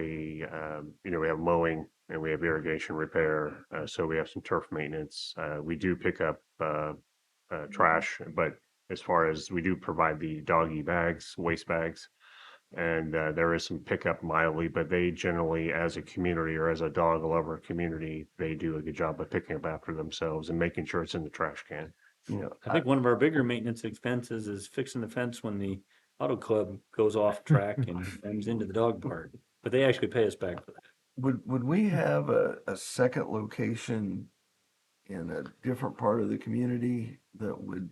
a, um, you know, we have mowing and we have irrigation repair. Uh, so we have some turf maintenance. Uh, we do pick up, uh, uh, Mm-hmm. trash, but as far as we do provide the doggy bags, waste bags. And, uh, there is some pickup mildly, but they generally, as a community or as a dog lover community, they do a good job of picking up after themselves and making sure it's in the trash can. Uh, You know, Uh, I think one of our bigger maintenance expenses is fixing the fence when the auto club goes off track and comes into the dog park. But they actually pay us back for that. Would, would we have a, a second location in a different part of the community that would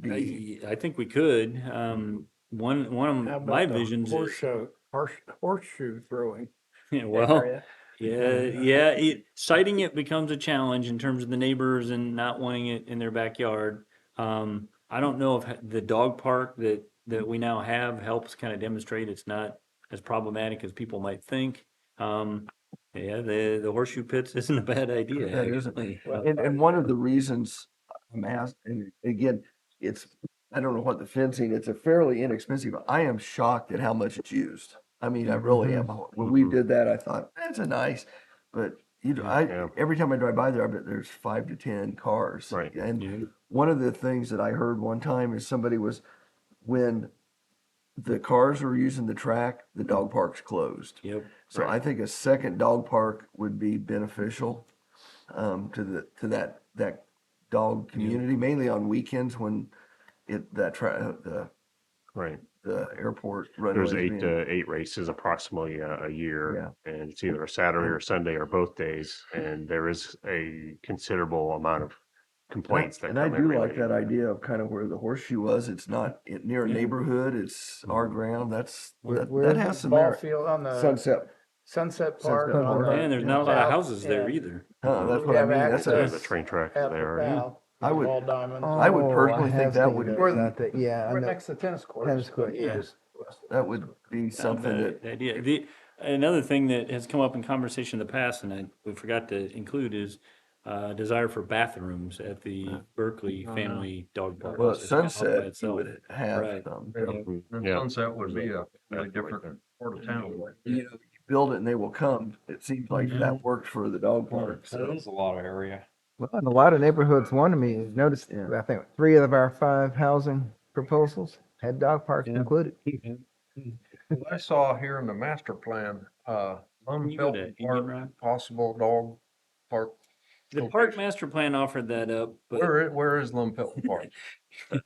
be? I- I think we could, um, one, one How of about my the visions is, Horseshoe, horse, horseshoe throwing. yeah, well, area? yeah, yeah, it, citing it becomes a challenge in terms of the neighbors and not wanting it in their backyard. Um, I don't know if ha- the dog park that, that we now have helps kind of demonstrate it's not as problematic as people might think. Um, yeah, the, the horseshoe pits isn't a bad idea. That isn't. actually. Well, And, and one of the reasons I'm asked, and again, it's, I don't know what the fencing, it's a fairly inexpensive, but I am shocked at how much it's used. I mean, I really am. When we Mhm. did that, I thought, that's a nice, but you, know, I, Yeah. every time I drive by there, I bet there's five to ten cars. Right. And Yeah. one of the things that I heard one time is somebody was when the cars were using the track, the dog park's closed. Yep. So I Right. think a second dog park would be beneficial um, to the to that that dog community, mainly on weekends when it that tra- uh, the Right. the airport runways. There's eight uh, being- to eight races approximately a, a year, and it's either a Saturday or Sunday or both days, and there is a considerable amount of And I- complaints that And I come do every like that day. idea of kind of where the horseshoe was. It's not it- near a Yeah. neighborhood. It's Mm-hmm. our ground. That's Where- that, where's that the has some ball merit. Field uh, on the Sunset. Sunset Park. Sunset on Park. the- And there's not a lot of south houses there end either. Uh, that's what I have mean. That's They have a, a access train track At the there. yeah. bow, I the would- Ball diamond. I would Oh, personally think have that seen would- those Where the- out there. Yeah, I We're know. next to tennis court. Tennis court, yeah. that would be something the- that the Idea, the, another thing that has come up in conversation in the past, and I, we forgot to include is, uh, desire for bathrooms at the Berkeley Family Dog Park. Oh, well, at which is out by sunset you itself. would have um, Right. some. Mhm. The Yeah. Sunset would be a really That's right different there. part of town. You know, you build it and they will come. It seems like Mm-hmm. that worked for the dog park. That is a lot of area. Well, in a lot of neighborhoods, one of me has noticed, Yeah. I think three of our five housing proposals had dog parks Yeah. included. I saw here in the master plan, uh, Can you go to Lum Indian Park, Rock? possible dog park. The park master plan offered that up, but Where, i- where is Lum Pelton Park?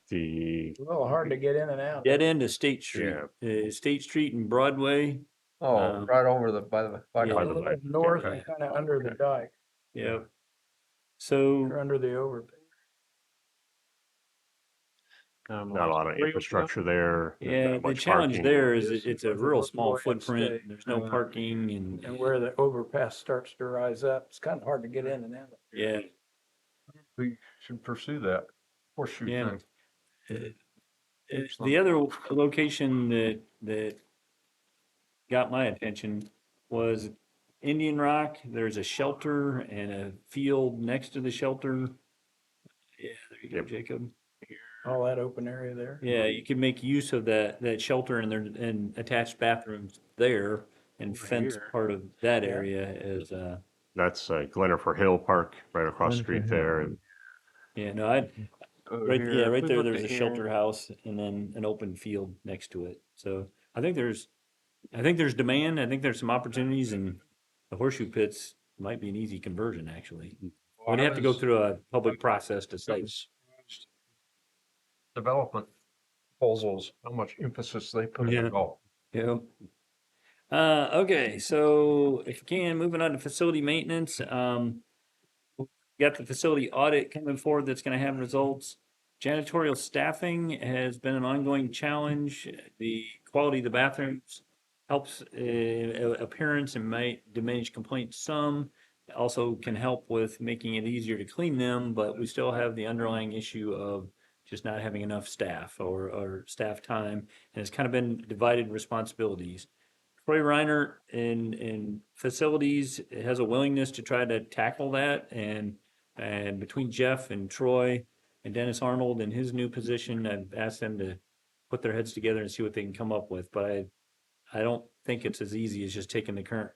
The It's A little hard to get in and out. dead end of State Street, uh, State Street and Broadway. Oh, Um, right over the, by the, by yeah. A by the, the little way, North, okay. kind of under the dike, Yep. So. or under the overpass. not a lot of infrastructure there. there's Yeah, not the much challenge parking. there is it- Yes, it's a with the real local small way of footprint, stay. there's no Uh, parking And and, where the overpass starts to rise up, it's kind of hard to get in and out. yeah. we should pursue that horseshoe Yeah. thing. Uh, The other location that, that got my attention was Indian Rock. There's a shelter and a field next to the shelter. Yeah, there you go, Yep. Jacob. All that open area there. Yeah, you can make use of that, that shelter and there, and attached bathrooms there and Over fence here. part of that Yeah. area as, uh, That's uh, Glenifer Hill Park, right across the street Glenifer there. and yeah, no, I, Over Right, here, yeah, if right we there, look there's at a here, shelter house and then an open field next to it. So I think there's, I think there's demand. I think there's some opportunities and the horseshoe pits might be an easy conversion, actually. well, We'd I have to go was- through a public process to say, Development proposals, how much emphasis they put Yeah. in golf. Yeah. Uh, okay, so if you can, moving on to facility maintenance, um. we Got the facility audit coming forward that's gonna have results. Janitorial staffing has been an ongoing challenge. The quality of the bathrooms helps uh, a- appearance and might diminish complaints some. Also can help with making it easier to clean them, but we still have the underlying issue of just not having enough staff or, or staff time and it's kind of been divided responsibilities. Troy Reiner in in facilities has a willingness to try to tackle that, and and between Jeff and Troy and Dennis Arnold in his new position, I've asked them to put their heads together and see what they can come up with. But I I don't think it's as easy as just taking the current